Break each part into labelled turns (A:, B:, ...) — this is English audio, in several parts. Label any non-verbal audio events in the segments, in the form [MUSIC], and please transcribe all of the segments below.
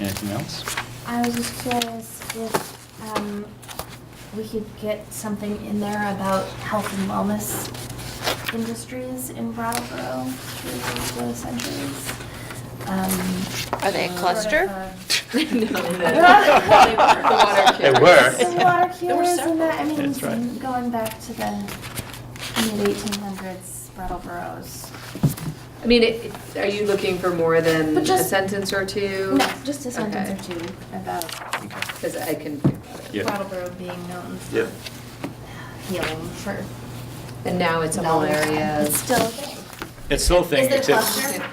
A: Anything else?
B: I was just curious if um, we could get something in there about health and wellness industries in Brattleboro through the centuries. Um,
C: Are they a
B: sort of
C: cluster?
B: a-
A: [LAUGHS]
B: [LAUGHS]
A: They were.
B: Some water
D: There were
B: cures and that, I mean,
A: That's right.
B: going back to the mid-1800s Brattleboro's.
D: I mean, it- are you looking for more than
B: But
D: a
B: just-
D: sentence or two?
B: No, just a sentence or two about
A: Okay.
D: Because I can think about it.
A: Yeah.
B: Brattleboro being known
E: Yeah.
B: for healing for.
D: And now it's a whole
B: long time.
D: area.
B: It's still a thing.
A: It's still a thing.
B: Is it a
A: it's a-
B: cluster?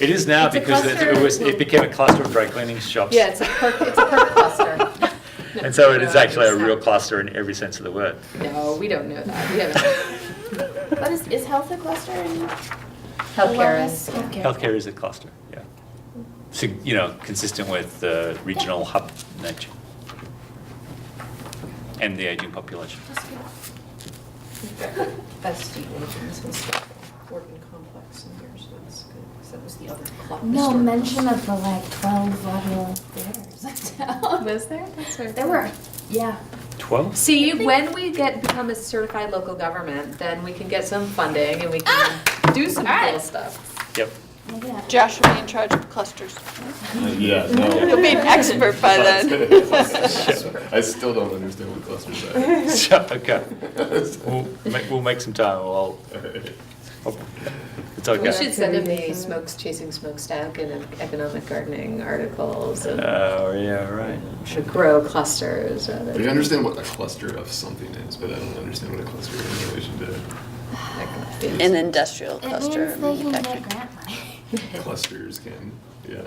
A: It is now
D: It's a
A: because it- it
D: cluster.
A: was, it became a cluster of dry cleaning shops.
D: Yeah, it's a perk, it's a perk cluster.
A: And so it is actually a real cluster in every sense of the word.
D: No, we don't know that. We haven't.
B: But is, is health a cluster and?
D: Healthcare is.
A: [LAUGHS]
B: Healthcare.
A: Healthcare is a cluster, yeah. So, you know, consistent with the regional hub nature and the aging population.
F: SD agents and stuff, Orton complex in here, so that's good, 'cause that was the other cluster.
B: No mention of the like twelve lateral bears uptown.
D: [LAUGHS] Was there? That's sort of-
B: There were, yeah.
A: 12?
D: See, when we get, become a certified local government, then we can get some funding and we can
B: Ah!
D: do some cool stuff.
A: Yep. [LAUGHS]
B: Maybe not.
C: Josh will be in charge of clusters.
E: Yeah,
C: He'll
E: no.
C: be an expert by then.
E: I still don't understand what clusters are.
A: So,
E: [LAUGHS]
A: Okay. We'll make, we'll make some time, we'll, I'll- it's
D: We
A: okay.
D: should send them the smokes, chasing smokestack and economic gardening articles and
A: Oh, yeah, right.
D: should grow clusters rather
E: I
D: than.
E: understand what a cluster of something is, but I don't understand what a cluster is in
C: [LAUGHS]
E: relation
C: An industrial
B: It means
C: cluster.
B: they can
C: manufacturing.
B: get grant money.
D: [LAUGHS]
E: to clusters can, yeah.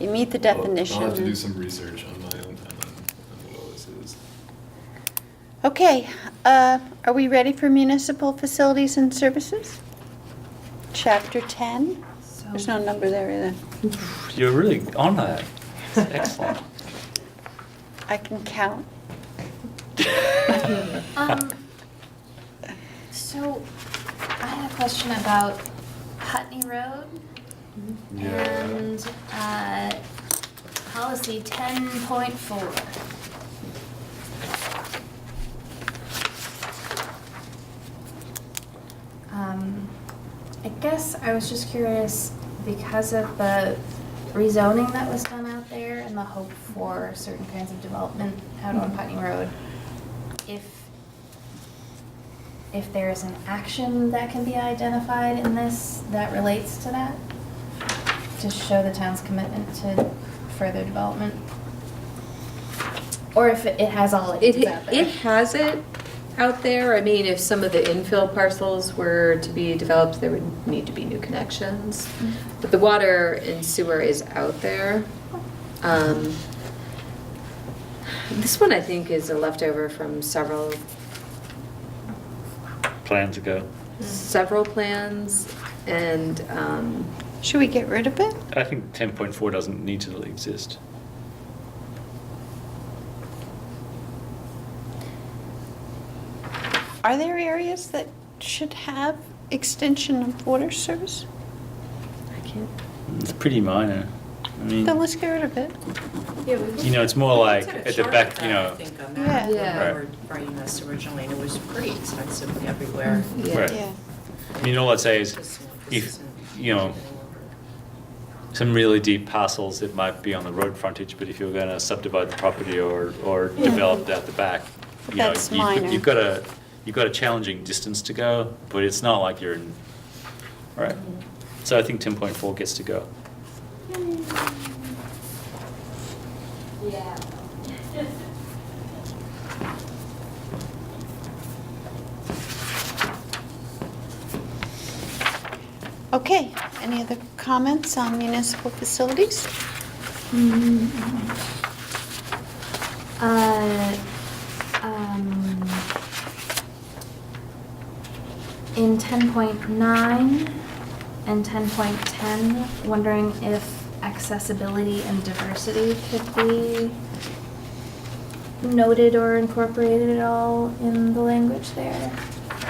C: You meet the
E: I'll- I'll have to do
C: definition.
E: some research on my own time on on what all this is.
C: Okay, uh, are we ready for municipal facilities and services? Chapter 10? There's no number there either.
A: You're really on that. Excellent.
C: I can count.
B: Um, so I had a question about Putney Road and, uh, policy ten point four. Um, I guess I was just curious because of the rezoning that was done out there and the hope for certain kinds of development out on Putney Road. If, if there is an action that can be identified in this that relates to that? To show the town's commitment to further development? Or if it it has all it
D: It,
B: is out there?
D: it has it out there. I mean, if some of the infill parcels were to be developed, there would need to be new connections. But the water and sewer is out there. Um, This one, I think, is a leftover from several,
A: [LAUGHS] Plans ago.
D: Mm. several plans. And um,
C: Should we get rid of it?
A: I think 10.4 doesn't need to exist.
C: Are there areas that should have extension of water service?
D: I can't,
A: It's pretty minor. I mean,
C: Then let's get rid of it.
A: you know, it's more like at the back, you know,
F: I think on
C: Yeah.
F: that, when
D: Yeah.
F: we were writing this originally, and it was pretty expensive everywhere.
A: Right.
C: Yeah.
A: I mean, all I'd say is
F: This one- this
A: if,
F: isn't
A: you know,
F: getting over.
A: some really deep parcels, it might be on the road frontage, but if you're going to subdivide the property or, or develop it out the back, you know,
C: That's minor.
A: you've you've got a, you've got a challenging distance to go, but it's not like you're in, all right. So I think 10.4 gets to go.
C: Okay, any other comments on municipal facilities?
B: Mm-hmm. Uh, um, in ten point nine and ten point ten, wondering if accessibility and diversity could be noted or incorporated at all in the language there.